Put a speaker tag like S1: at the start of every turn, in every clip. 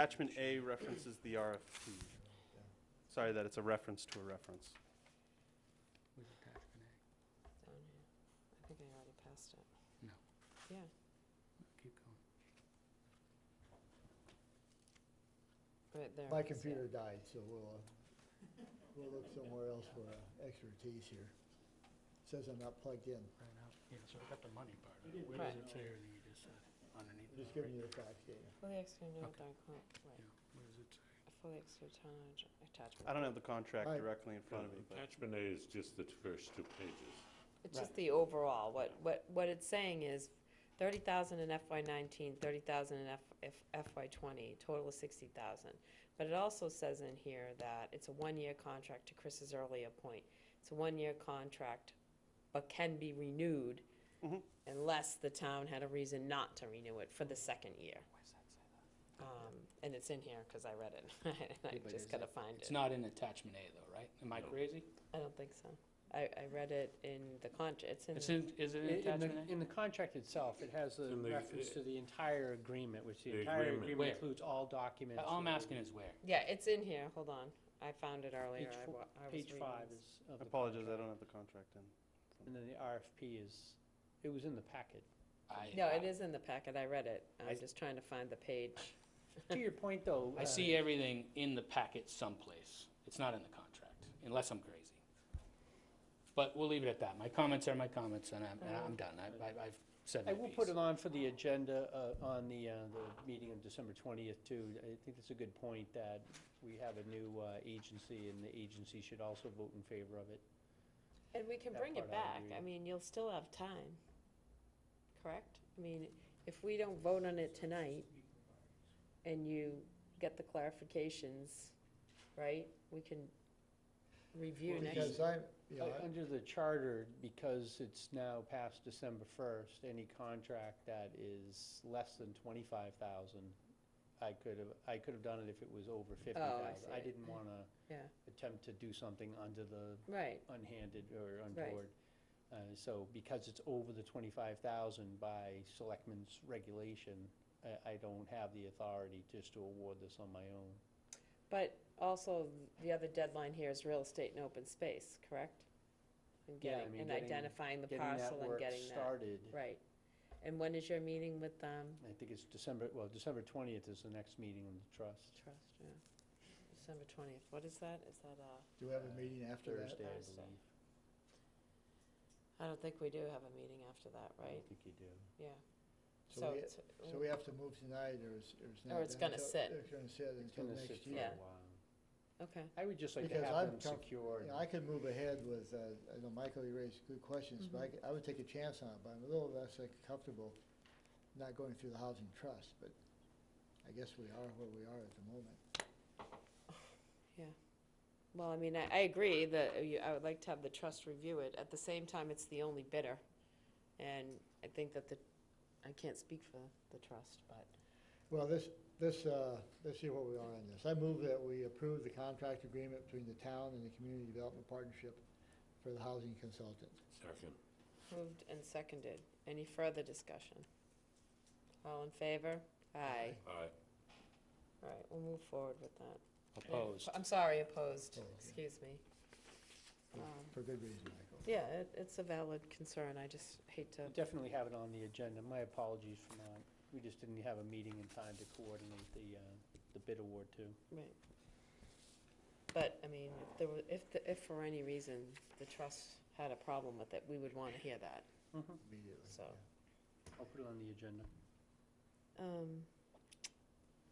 S1: Attachment A references the RFP. Sorry that it's a reference to a reference.
S2: with attachment A.
S3: down here. I think I already passed it.
S2: No.
S3: Yeah,
S2: Keep going.
S3: right there.
S4: My
S3: it is, yeah.
S4: computer died, so we'll, uh, we'll look somewhere else for uh, expertise here. Says I'm not plugged in.
S2: Right out. Yeah, so we got the money part. of it. Where does
S3: Right.
S2: it say everything you just said underneath?
S4: Just
S2: that,
S4: giving you
S2: right?
S4: the facts, Dana.
S3: Fully executed,
S2: Okay.
S3: dark cloud, right.
S2: Yeah, where does it say?
S3: A fully executed town ad- attachment.
S1: I don't have the contract
S4: Aye.
S1: directly in front of me, but
S5: Attachment A is just the first two pages.
S3: It's just the overall, what, what, what it's saying is thirty thousand in FY nineteen, thirty thousand in F, F- FY twenty, total of sixty thousand. But it also says in here that it's a one-year contract, to Chris's earlier point, it's a one-year contract, but can be renewed
S1: Mhm.
S3: unless the town had a reason not to renew it for the second year.
S2: Where's that say that?
S3: Um, and it's in here, cause I read it,
S2: Yeah,
S3: and I
S2: but is
S3: just gotta
S2: it-
S3: find
S2: It's
S3: it.
S2: not in attachment A though, right? Am I
S5: No.
S2: crazy?
S3: I don't think so. I, I read it in the contract, it's in.
S2: It's
S3: the-
S2: in, is it in
S6: In- In
S2: attachment
S6: the, in the contract itself, it has a
S5: In the-
S6: reference to the entire agreement, which the
S5: The
S6: entire
S5: agreement.
S2: Where?
S6: agreement includes all
S2: A?
S6: documents.
S2: All I'm
S6: that-
S2: asking is where?
S3: Yeah, it's in here, hold on, I found it earlier,
S6: Page
S3: I
S6: four-
S3: wa- I was
S6: Uh, Page
S3: reading
S6: five
S3: this.
S6: is of
S1: I
S6: the
S1: apologize, I
S6: contract.
S1: don't have the contract in.
S6: And then the RFP is, it was in the packet.
S2: I-
S3: No,
S2: I-
S3: it is in the packet, I read it,
S6: I-
S3: I'm just trying to find the page.
S6: To your point, though.
S2: I
S6: uh,
S2: see everything in the packet someplace. It's not in the contract, unless I'm crazy. But we'll leave it at that. My comments are my comments, and I'm, and I'm done. I, I- I've said my
S6: I
S2: piece.
S6: will put it on for the agenda, uh, on the, uh, the meeting of December twentieth too. I think that's a good point that we have a new, uh, agency and the agency should also vote in favor of it.
S3: And we can
S6: That
S3: bring it
S6: part I
S3: back,
S6: agree.
S3: I mean, you'll still have time, correct? I mean, if we don't vote on it tonight, and you get the clarifications, right, we can review
S6: Well,
S3: next. Oh,
S6: because
S4: Because I'm, you know,
S6: Uh, Under the charter, because it's now past December first, any contract that is less than twenty-five thousand, I could have, I could have done it if it was over fifty thousand. I
S3: Oh, see.
S6: didn't wanna
S3: Yeah.
S6: attempt to do something under the
S3: Right,
S6: unhanded or
S3: Right.
S6: untoward. Uh, So because it's over the twenty-five thousand by selectmen's regulation, I, I don't have the authority just to award this on my own.
S3: but also, the other deadline here is real estate and open space, correct? And
S6: Yeah, I
S3: getting,
S6: mean,
S3: and
S6: getting-
S3: identifying the
S6: Getting
S3: parcel
S6: that
S3: and
S6: work
S3: getting that,
S6: started,
S3: right. And when is your meeting with, um,
S6: I think it's December, well, December twentieth is the next meeting on the trust.
S3: trust, yeah, December twentieth, what is that, is that, uh,
S4: do we have a meeting after that?
S6: Thursday, I
S3: Thursday.
S6: believe.
S3: I don't think we do have a meeting after that,
S6: I
S3: right?
S6: don't think you do.
S3: Yeah,
S4: So
S3: so
S4: we-
S3: it's,
S4: So we have to move tonight, or it's, or it's not.
S3: Or it's
S4: done
S3: gonna
S4: until-
S3: sit.
S4: It's gonna sit
S6: It's
S4: until
S6: gonna
S4: next year.
S6: sit for
S3: Yeah.
S6: a while.
S3: okay,
S6: I would just like to
S4: Because
S6: have
S4: I'm
S6: them
S4: comf-
S6: secured.
S4: You know, I could move ahead with, uh, I know Michael, you raised good questions, but I
S3: Mm-hmm.
S4: could- I would take a chance on it, but I'm a little less like comfortable not going through the housing trust, but I guess we are where we are at the moment.
S3: well, I mean, I, I agree that uh, you, I would like to have the trust review it, at the same time, it's the only bidder. And I think that the, I can't speak for the trust, but,
S4: Well, this, this, uh, let's see where we are on this. I move that we approve the contract agreement between the town and the Community Development Partnership for the housing consultant.
S5: Second.
S3: moved and seconded, any further discussion? All in favor? Aye,
S5: Aye.
S3: all right, we'll move forward with that.
S2: Opposed.
S3: I'm sorry, opposed,
S4: Oh, okay. Hmm.
S3: excuse me. Um,
S4: For good reason, Michael.
S3: Yeah, it, it's a valid concern, I just hate to,
S6: We'll Definitely have it on the agenda. My apologies for not, we just didn't have a meeting in time to coordinate the, uh, the bid award too.
S3: right. But, I mean, if there were, if, the- if for any reason the trust had a problem with it, we would want to hear that.
S4: Immediately.
S3: So.
S4: yeah.
S6: I'll put it on the agenda.
S3: Um,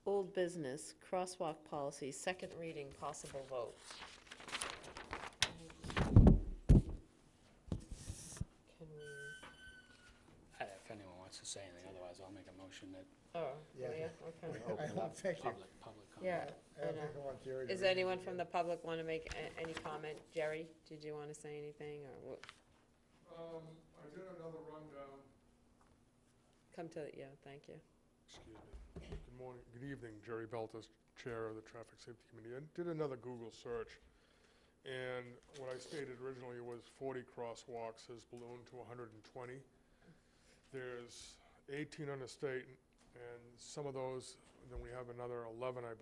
S3: Old business, crosswalk policy, second reading, possible vote. Can we,
S2: Uh, If anyone wants to say anything, otherwise I'll make a motion that
S3: oh,
S4: Yeah. Oh.
S3: yeah, okay.
S4: I don't think, you-
S2: public, public
S3: Yeah.
S2: comment.
S4: I don't think I want Jerry to
S3: Is
S4: read it
S3: anyone
S4: again.
S3: from the public want to make a- any comment? Jerry, did you want to say anything, or what?
S7: Um, I did another rundown.
S3: Come to, the yeah, thank you.
S7: Excuse me. Good morning, good evening, Jerry Beltis, Chair of the Traffic Safety Committee. I did another Google search, and what I stated originally was 40 crosswalks has ballooned to 120. There's 18 on the state, and some of those then we have another eleven, I believe,